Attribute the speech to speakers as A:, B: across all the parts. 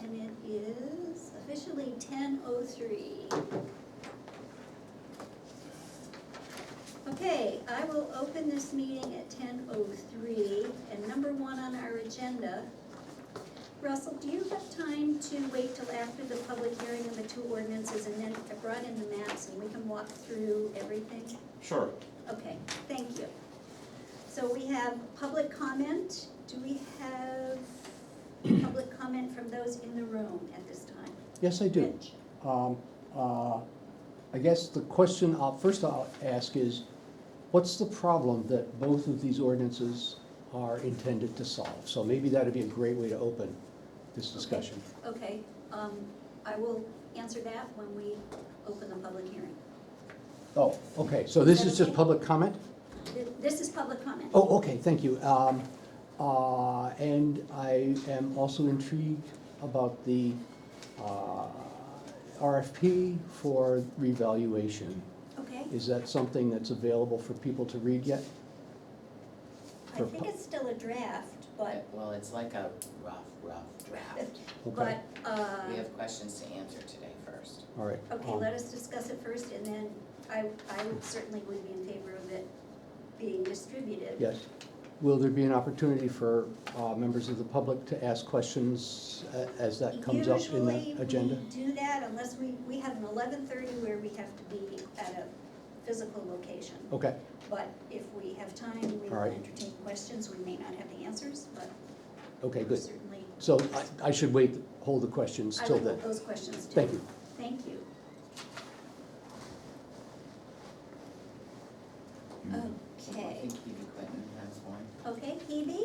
A: and it is officially ten oh three. Okay, I will open this meeting at ten oh three, and number one on our agenda. Russell, do you have time to wait till after the public hearing of the two ordinances, and then I brought in the maps, and we can walk through everything?
B: Sure.
A: Okay, thank you. So we have public comment. Do we have public comment from those in the room at this time?
C: Yes, I do.
A: Mitch?
C: Um, uh, I guess the question I'll, first I'll ask is, what's the problem that both of these ordinances are intended to solve? So maybe that'd be a great way to open this discussion.
A: Okay, um, I will answer that when we open the public hearing.
C: Oh, okay, so this
A: Is that
C: is just
A: okay?
C: public comment?
A: Th- This is public comment.
C: Oh, okay, thank you. Um, uh, and I am also intrigued about the, uh, RFP for revaluation.
A: Okay,
C: Is that something that's available for people to read yet?
A: I think it's still a draft, but,
D: Well, it's like a rough, rough draft.
C: Okay,
A: but, uh,
D: We have questions to answer today first.
C: all right.
A: okay,
C: um,
A: let us discuss it first, and then I, I certainly would be in favor of it being distributed.
C: Yes. Will there be an opportunity for uh, members of the public to ask questions a- as that comes up in the agenda?
A: Usually, we do that unless we, we have an eleven-thirty where we have to be at a physical location.
C: Okay,
A: But if we have time, we
C: All
A: will
C: right.
A: entertain questions, we may not have the answers, but
C: okay, good.
A: certainly,
C: So I- I should wait, hold the questions
A: I
C: till
A: would
C: then.
A: put those questions too.
C: Thank you.
A: Thank you.
D: I
A: Okay,
D: think Hebe Clinton has one.
A: okay, Hebe?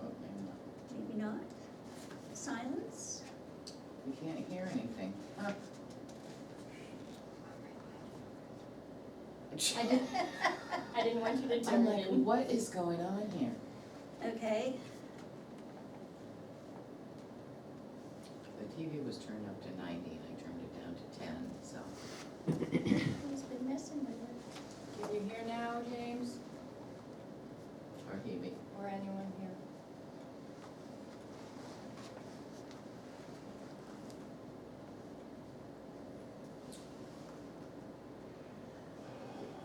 D: Oh, maybe not.
A: Maybe not. Silence?
D: We can't hear anything. Huh.
E: I didn't, I didn't want you to
D: I'm
E: turn
D: like,
E: in.
D: what is going on here?
A: Okay,
D: The TV was turned up to ninety and I turned it down to ten, so.
A: who's been messing with it?
E: Can you hear now, James,
D: Or Hebe.
E: or anyone here?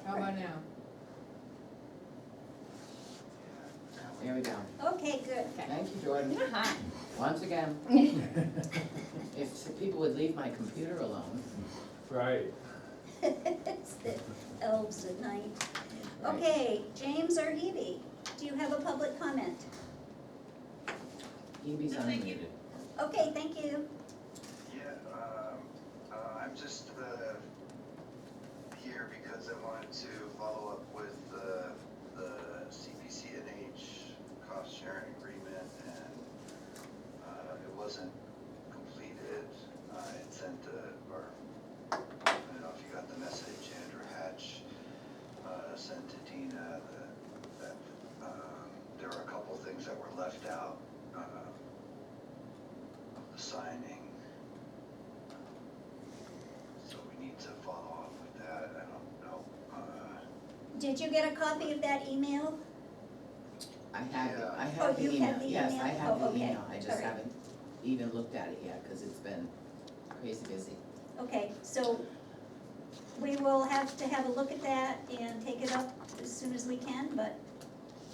E: How about now?
D: Oh, There we go.
A: Okay, good.
D: Thank you, Jordan, once again. If the people would leave my computer alone.
F: Right.
A: It's the elves at night.
D: Right.
A: Okay, James or Evie, do you have a public comment?
D: Hebe's unmuted.
A: Okay, thank you.
G: Yeah, um, uh, I'm just, uh, here because I wanted to follow up with, uh, the CPCNH cost sharing agreement and, uh, it wasn't completed. I had sent a, or, I don't know if you got the message, Andrew Hatch, uh, sent to Dina that, that, um, there were a couple things that were left out, um, of the signing. So we need to follow up with that, I don't know, uh,
A: Did you get a copy of that email?
D: I have, the- I
A: Oh,
D: have the
A: you
D: email,
A: have the
D: yes, I
A: email?
D: have
A: Oh,
D: the
A: okay.
D: email, I
A: All
D: just
A: right.
D: haven't even looked at it yet, cause it's been crazy busy.
A: Okay, so we will have to have a look at that and take it up as soon as we can, but,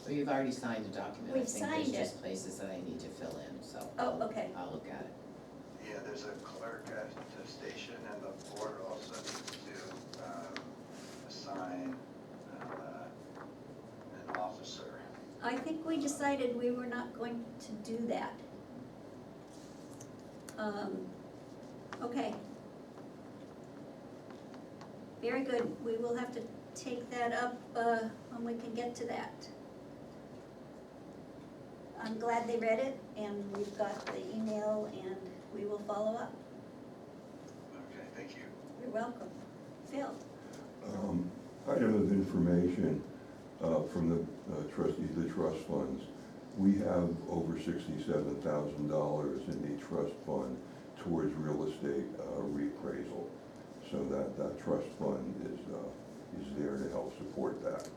D: Well, you've already signed a document, I
A: We've
D: think there's
A: signed
D: just places that I need to fill in, so.
A: Oh,
D: I'll-
A: okay.
D: I'll look at it.
G: yeah, there's a clerk at the station and the board also needs to, um, assign, uh, an officer.
A: I think we decided we were not going to do that. Um, okay. Very good, we will have to take that up, uh, when we can get to that. I'm glad they read it, and we've got the email, and we will follow up.
G: Okay, thank you.
A: You're welcome. Phil?
H: Um, Item of information uh, from the uh, trustees, the trust funds. We have over sixty-seven thousand dollars in the trust fund towards real estate uh, reappraisal. So that, that trust fund is, uh, is there to help support that